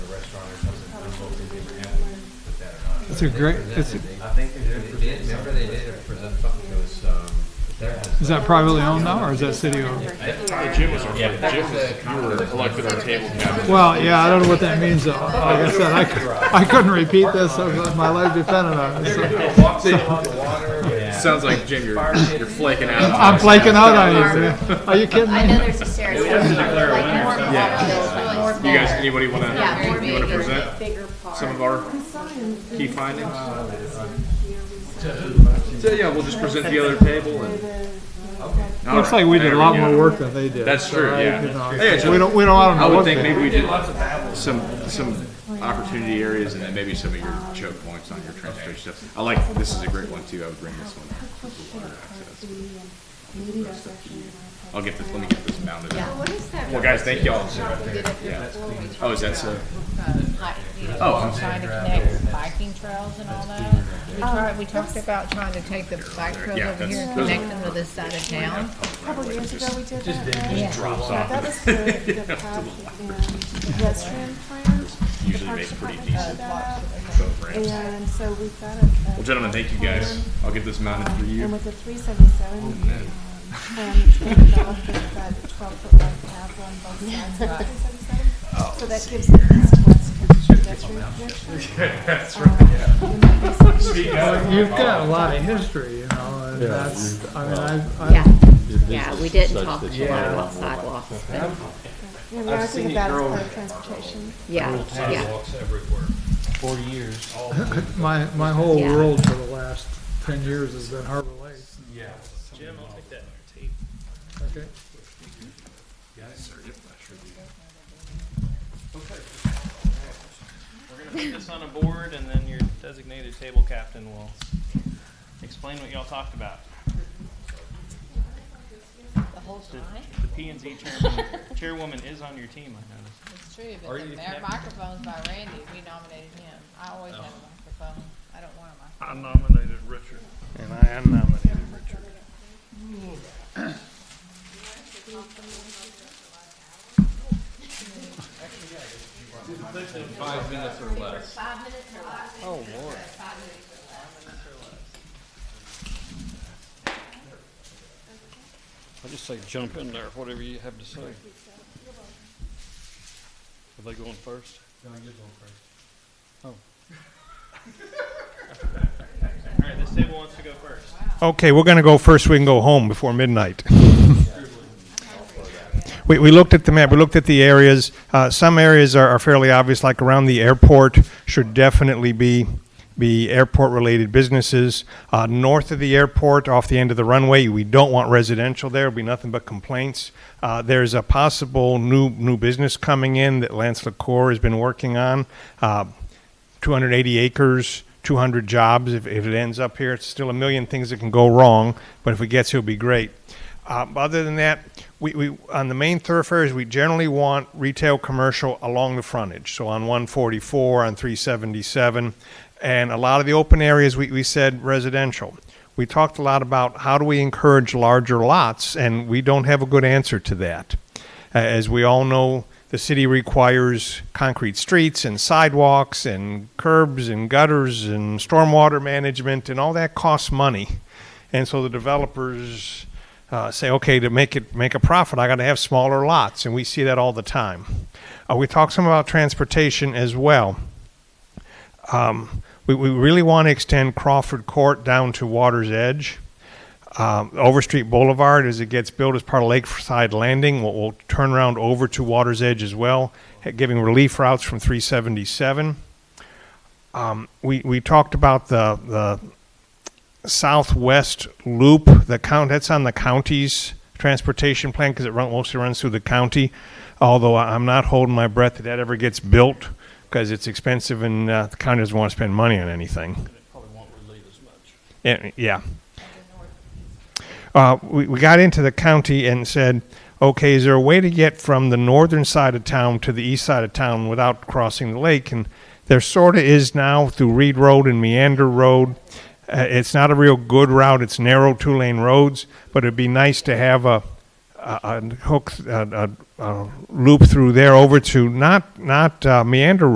vote they did, we have to put that or not. It's a great, it's, a- I think they did. They did, remember they did it present something that was, um, there has. is that privately owned now, or is that city owned? The gym was, our- Yeah. the gym was, you were elected on table captain. Well, yeah, I don't know what that means, though. Like I said, I, cou- I couldn't repeat this, so my life depended on it. so. Walk safe on the water. Yeah. Sounds like, Jim, you're, you're flaking out. I'm flaking out on you, man. Are you kidding I know me? there's a stairs. We have to declare a Like winner more or water, something. more You guys, water. anybody wanna, Yeah, more you wanna bigger- present Bigger part. some of our key findings? So, yeah, we'll just present the other table and. All Looks right, like we did there a lot go. more work than they did. That's true, So I yeah. could not- Yeah, so- We don't, we don't, I don't I know would what think they maybe we did. did some, some opportunity areas and then maybe some of your choke points on your transportation stuff. I like, this is a great one too, I would bring this one. up, the water access. I'll get this, let me get this mounted up. What is that? Well, guys, thank y'all. Yeah. Yeah. Oh, is that so? Oh, I'm Oh. Trying to connect biking trails and all that. We tried, we talked about trying to take the bike trails Yeah, over here and that's- those are- connect them to this side of town. Couple of years ago, we did that. Yeah. right? That was the, the path and pedestrian plan. Usually makes pretty decent boat ramps. And so we've got a. um, Well, gentlemen, thank you guys. I'll get this mounted for And you. Oh, with the three seventy-seven, um, plan it's been developed with that twelve-foot wide path on both sides of the three Oh. seventy-seven. So that gives the east-west pedestrian connection. That's Um, right, yeah. You've got a lot of history, you know, and that's, I mean, I, I. Yeah, yeah, we didn't talk a lot about sidewalks, but And now I think about it for transportation. yeah, yeah. Sidewalks everywhere. Forty years. My, my whole Yeah. world for the last ten years has been Harbor Lakes. Yeah. Jim, I'll take that tape. Okay. We're gonna put this on a board and then your designated table captain will explain what y'all talked about. The whole time? The P and Z chairman, chairwoman is on your team, I noticed. It's true, but the mayor microphone's by Randy, we nominated him. I always have a microphone. I don't want a microphone. I nominated Richard. And I am nominating Richard. Five minutes or less. I just say jump in there, whatever you have to say. Are they going first? All right, this table wants to go first. Okay, we're going to go first. We can go home before midnight. we, we looked at the map. We looked at the areas. Uh, some areas are, are fairly obvious, like around the airport should definitely be be airport-related businesses. Uh, north of the airport, off the end of the runway, we don't want residential there. It'll be nothing but complaints. Uh, there's a possible new new business coming in that Lance LaCour has been working on. Uh, 280 acres, 200 jobs. If, if it ends up here, it's still a million things that can go wrong, but if it gets here, it'll be great. Uh, other than that, we, we on the main thoroughfares, we generally want retail commercial along the frontage. So on 144, on 377, and a lot of the open areas, we, we said residential. We talked a lot about how do we encourage larger lots, and we don't have a good answer to that. Uh, As we all know, the city requires concrete streets and sidewalks and curbs and gutters and stormwater management, and all that costs money. And so the developers uh, say, okay, to make it make a profit, I got to have smaller lots, and we see that all the time. Uh, we talked some about transportation as well. Um, we, we really want to extend Crawford Court down to Water's Edge. Um, Overstreet Boulevard, as it gets built as part of Lakeside Landing, will will turn around over to Water's Edge as well, eh, giving relief routes from 377. Um, we, we talked about the, the southwest loop, the count, that's on the county's transportation plan because it run, mostly runs through the county. Although I- I'm not holding my breath that that ever gets built because it's expensive and uh, the county doesn't want to spend money on anything. Probably won't relate as much. Yeah, Yeah. Uh, we, we got into the county and said, okay, is there a way to get from the northern side of town to the east side of town without crossing the lake? And there sort of is now through Reed Road and Meander Road. Uh, it's not a real good route. It's narrow two lane roads, but it'd be nice to have a, a, a hook, a, a, a loop through there over to not, not uh, Meander